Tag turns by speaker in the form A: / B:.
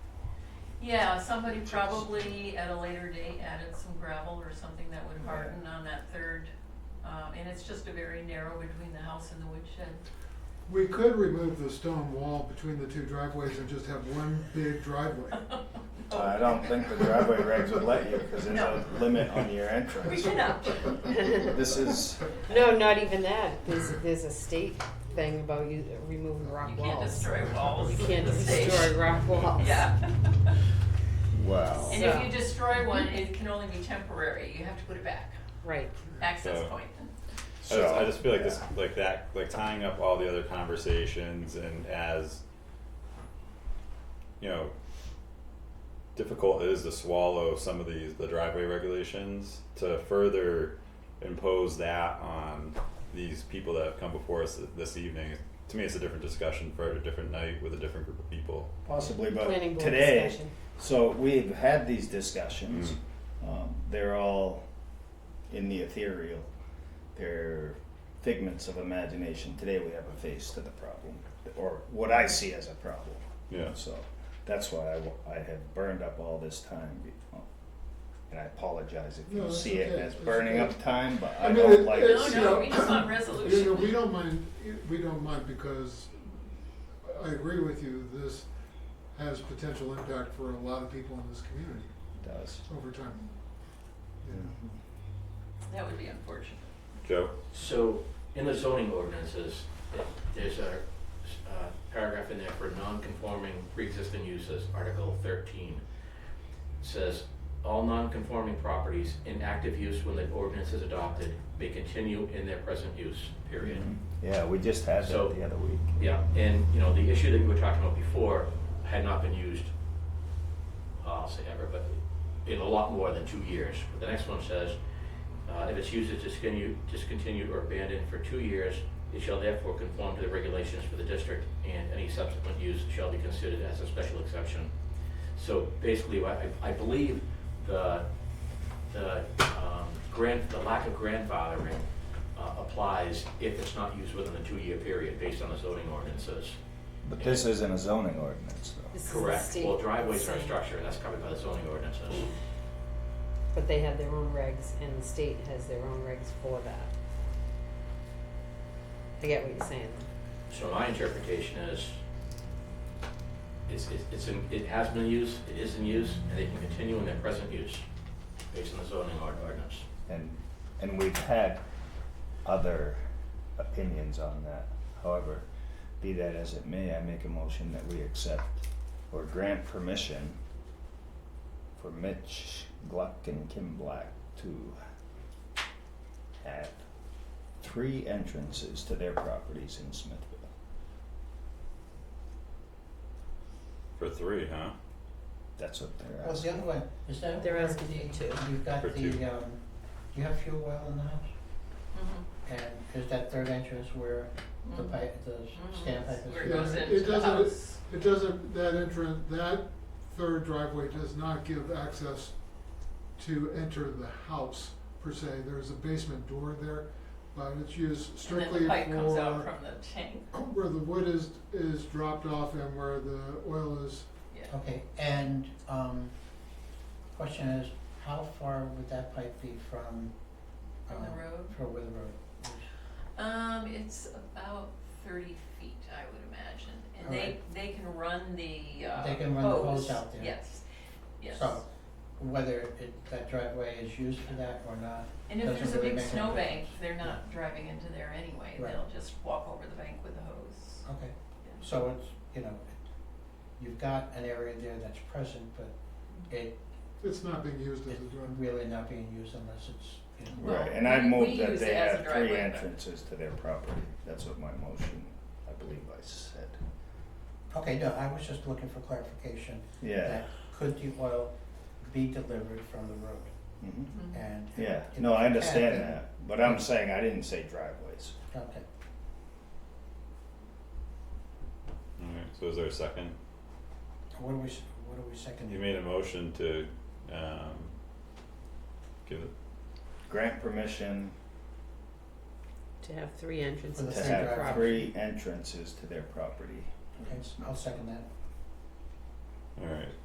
A: Yeah, somebody probably at a later date added some gravel or something that would
B: Yeah.
A: harden on that third. Uh, and it's just a very narrow between the house and the woodshed.
B: We could remove the stone wall between the two driveways and just have one big driveway.
C: Uh,
D: Uh,
C: I don't think the driveway regs would let you because there's
A: No.
C: a limit on your
A: We
C: entrance.
A: cannot.
C: This is,
D: No, not even that. There's, there's a state thing about you removing rock
A: You can't
D: walls.
A: destroy walls.
D: you can't
A: in the state.
D: destroy rock walls.
A: Yeah.
E: Wow.
A: And if
D: So-
A: you destroy one, it can only be temporary. You have to put it back.
D: Right.
A: Access
F: So-
A: point.
F: I just, I just feel like
C: yeah.
F: this, like that, like tying up all the other conversations and as, you know, difficult it is to swallow some of these, the driveway regulations, to further impose that on these people that have come before us this evening, to me, it's a different discussion for a different night with a different group of people.
C: possibly, but
D: Planning board
C: today,
D: discussion.
C: so we've had these discussions.
F: Mm-hmm.
C: Um, they're all in the ethereal. They're figments of imagination. Today we have a face to the problem, or what I see as a problem.
F: Yeah.
C: So that's why I, wa- I have burned up all this time. be- oh, And I apologize if
B: No,
C: you
B: it's
C: see it
B: okay.
C: as
B: It's
C: burning
B: okay.
C: up time, but
B: I
C: I
B: mean,
C: don't
B: it-
C: like
A: No,
B: it's-
C: it.
A: no, we just want
B: You know, we
A: resolution.
B: don't mind, we don't mind because I agree with you, this has potential impact for a lot of people in this community
C: does.
B: over time. Yeah.
A: That would be unfortunate.
F: Joe?
G: So, in the zoning ordinances, it- there's a uh, paragraph in there for non-conforming pre-existing uses, Article thirteen. Says, all non-conforming properties in active use when the ordinance is adopted may continue in their present use, period.
C: Mm-hmm. Yeah, we just had
G: So-
C: that the other week.
G: Yeah, and, you know, the issue that you were talking about before had not been used, I'll say ever, but in a lot more than two years. But the next one says, uh, if its use is discontinued, discontinued or abandoned for two years, it shall therefore conform to the regulations for the district, and any subsequent use shall be considered as a special exception. So basically, I, I I believe the, the, um, grand, the lack of grandfathering, uh, applies if it's not used within a two-year period based on the zoning ordinances.
C: But this isn't a zoning ordinance, though.
D: This is the
G: Correct,
D: state
G: well, driveways are a
D: saying-
G: structure, and that's covered by the zoning ordinances.
D: But they have their own regs, and the state has their own regs for that. I get what you're saying.
G: So my interpretation is, it's, it's- it's, in- it has been used, it is in use, and they can continue in their present use based on the zoning ord- ordinance.
C: And, and we've had other opinions on that. However, be that as it may, I make a motion that we accept or grant permission for Mitch Gluck and Kim Black to have three entrances to their properties in Smithville.
F: For three, huh?
C: That's what they're
H: What's
C: asking.
H: the other way? Is that
D: They're
H: where
D: asking
H: the-
D: you to.
H: You've got
F: For two.
H: the, um, you have fuel oil in the house,
A: Mhm,
H: and is that third entrance where the
A: mhm,
H: pipe, the
A: mhm.
H: standpipe
A: Where it
H: is?
A: goes
B: Yeah,
A: into
B: it
A: the
B: doesn't-
A: house.
B: It doesn't, that entrance, that third driveway does not give access to enter the house per se. There's a basement door there, but it's used
A: And then
B: strictly
A: the
B: for
A: pipe comes out from the tank,
B: where the wood is, is dropped off and where the oil is,
A: yeah.
H: Okay, and, um, question is, how far would that pipe be from?
A: From the
H: um,
A: road?
H: From where the road is?
A: Um, it's about thirty feet, I would imagine, and they,
H: Alright.
A: they can run the, uh,
H: They can run the hose out there.
A: Yes, yes.
H: So, whether it, that driveway is used for that or not,
A: And if
H: doesn't
A: there's a
H: really
A: big
H: make any
A: snowbank,
H: difference.
A: they're not driving into there anyway,
H: Right.
A: they'll just walk over the bank with the hose.
H: okay.
A: Yeah.
H: So it's, you know, you've got an area there that's present, but it,
B: it's not being used as
H: it's
B: a driveway.
H: really not being used unless it's, you know.
A: Well,
C: Right, and I
A: we- we
C: move that
A: use
C: they
A: it as a
C: have three
A: driveway, but-
C: entrances to their property. That's what my motion, I believe I said.
H: Okay, no, I was just looking for clarification.
C: Yeah,
H: that Could the oil be delivered from the road?
C: mhm.
A: Mhm.
H: And. if-
C: yeah,
H: if
C: no, I
H: it
C: understand
H: can,
C: that, but I'm saying I didn't say driveways.
H: then- Okay,
F: Alright, so is there a second?
H: what are we, s- what are we seconding?
F: You made a motion to, um, give it
C: Grant permission
D: To have three entrances
H: For
C: to
H: the
D: their
H: same
C: have
H: driveway.
D: property.
C: three entrances to their property.
H: Okay, I'll second that.
F: All right,